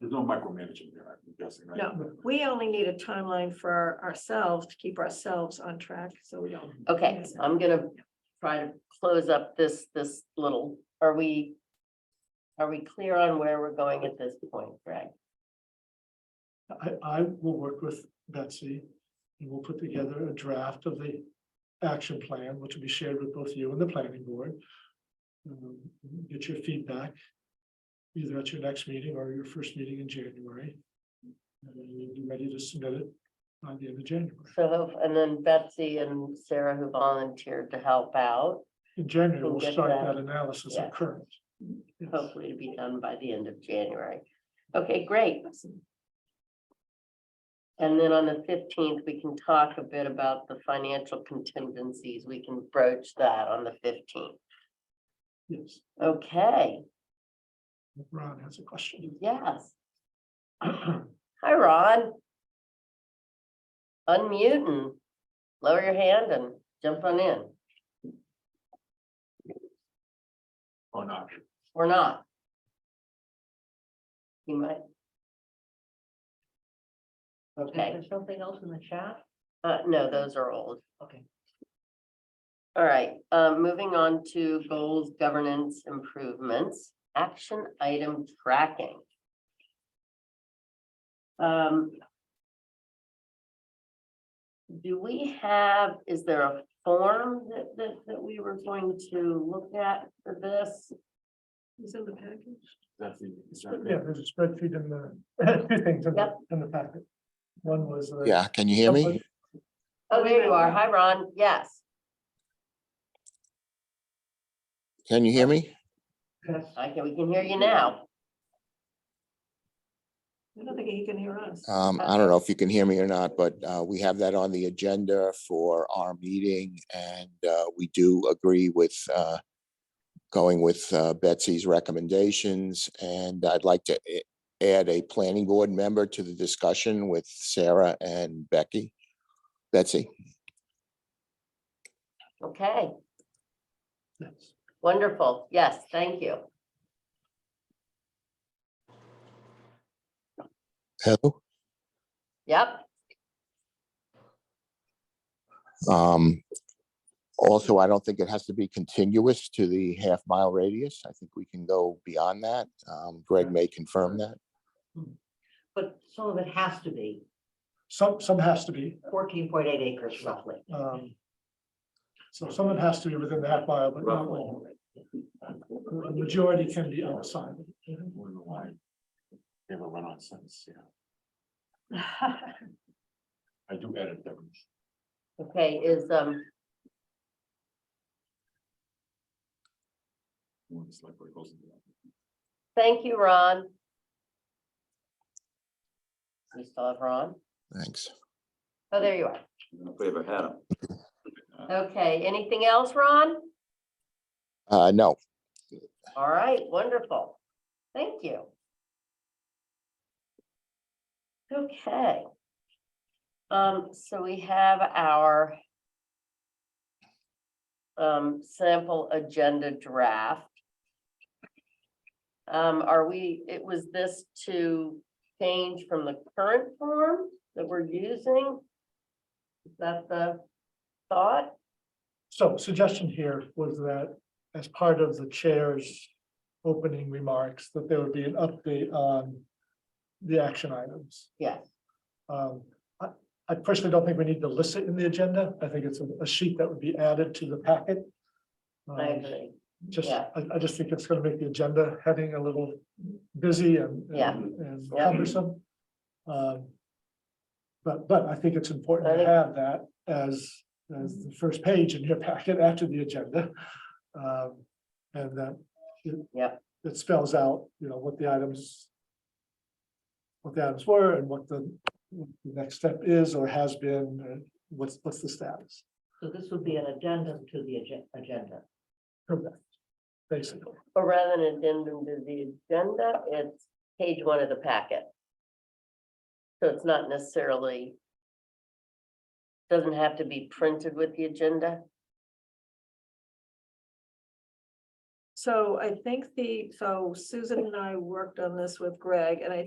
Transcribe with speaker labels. Speaker 1: no micromanaging there, I'm guessing, right?
Speaker 2: No. We only need a timeline for our- ourselves to keep ourselves on track, so we don't.
Speaker 3: Okay, um,
Speaker 2: Yes.
Speaker 3: I'm gonna try to close up this, this little, are we? Are we clear on where we're going at this point, Greg?
Speaker 4: I, I will work with Betsy and we'll put together a draft of the action plan, which will be shared with both you and the planning board. Um, Get your feedback either at your next meeting or your first meeting in January. And then you'll be ready to submit it by the end of January.
Speaker 3: So, hope- and then Betsy and Sarah who volunteered to help out,
Speaker 4: In January,
Speaker 3: We'll
Speaker 4: we'll
Speaker 3: get
Speaker 4: start
Speaker 3: that.
Speaker 4: that analysis
Speaker 3: Yeah.
Speaker 4: of current. Yes.
Speaker 3: hopefully to be done by the end of January. Okay, great. And then on the fifteenth, we can talk a bit about the financial contingencies. We can broach that on the fifteenth.
Speaker 4: Yes,
Speaker 3: Okay,
Speaker 4: Ron has a question.
Speaker 3: yes. Hi, Ron. Unmute and lower your hand and jump on in,
Speaker 1: Or not?
Speaker 3: or not. You might. Okay,
Speaker 2: something else in the chat?
Speaker 3: uh, no, those are old.
Speaker 2: Okay.
Speaker 3: All right, um, moving on to goals, governance improvements, action item tracking. Um. Do we have, is there a form that, that, that we were going to look at for this?
Speaker 2: Is in the package?
Speaker 1: That's the, is that
Speaker 4: Yeah, there's a spreadsheet in the, two things in the,
Speaker 3: Yep.
Speaker 4: in the packet. One was. uh,
Speaker 5: Yeah, can you hear me?
Speaker 3: Oh, there you are. Hi, Ron. Yes,
Speaker 5: Can you hear me?
Speaker 4: Yes.
Speaker 3: I can, we can hear you now.
Speaker 2: I don't think he can hear us.
Speaker 5: Um, I don't know if you can hear me or not, but, uh, we have that on the agenda for our meeting and, uh, we do agree with, uh, going with, uh, Betsy's recommendations and I'd like to a- add a planning board member to the discussion with Sarah and Becky. Betsy,
Speaker 3: Okay,
Speaker 4: Yes.
Speaker 3: wonderful. Yes, thank you.
Speaker 5: hello?
Speaker 3: Yep.
Speaker 5: Um, also, I don't think it has to be contiguous to the half mile radius. I think we can go beyond that. Um, Greg may confirm that.
Speaker 6: But some of it has to be
Speaker 4: Some, some has to be,
Speaker 6: fourteen point eight acres roughly.
Speaker 4: um. So someone has to be within the half mile, but not all. The majority can be outside.
Speaker 1: We're in the line. They have a run on sentence, yeah. I do edit them.
Speaker 3: Okay, is, um,
Speaker 1: One is like where it goes into that.
Speaker 3: thank you, Ron. We still have Ron?
Speaker 5: Thanks.
Speaker 3: Oh, there you are.
Speaker 7: Favorite hat.
Speaker 3: Okay, anything else, Ron?
Speaker 5: Uh, no,
Speaker 3: All right, wonderful. Thank you. Okay. Um, so we have our um, sample agenda draft. Um, are we, it was this to change from the current form that we're using? Is that the thought?
Speaker 4: So suggestion here was that as part of the chair's opening remarks, that there would be an update on the action items.
Speaker 3: Yes.
Speaker 4: Um, I, I personally don't think we need to list it in the agenda. I think it's a- a sheet that would be added to the packet.
Speaker 3: I
Speaker 4: Um,
Speaker 3: agree.
Speaker 4: Just,
Speaker 3: Yeah.
Speaker 4: I, I just think it's gonna make the agenda heading a little busy and.
Speaker 3: Yeah.
Speaker 4: and- And
Speaker 3: Yeah.
Speaker 4: cumbersome. Um, But, but I think it's important
Speaker 3: I
Speaker 4: to
Speaker 3: think-
Speaker 4: have that as, as the first page in your packet after the agenda. Um, And that. it-
Speaker 3: Yep.
Speaker 4: It spells out, you know, what the items. What the items were and what the, what the next step is or has been, uh, what's, what's the status,
Speaker 6: So this would be an addendum to the agen- agenda.
Speaker 4: basically.
Speaker 3: Or rather than addendum to the agenda, it's page one of the packet. So it's not necessarily. Doesn't have to be printed with the agenda.
Speaker 2: So I think the, so Susan and I worked on this with Greg, and I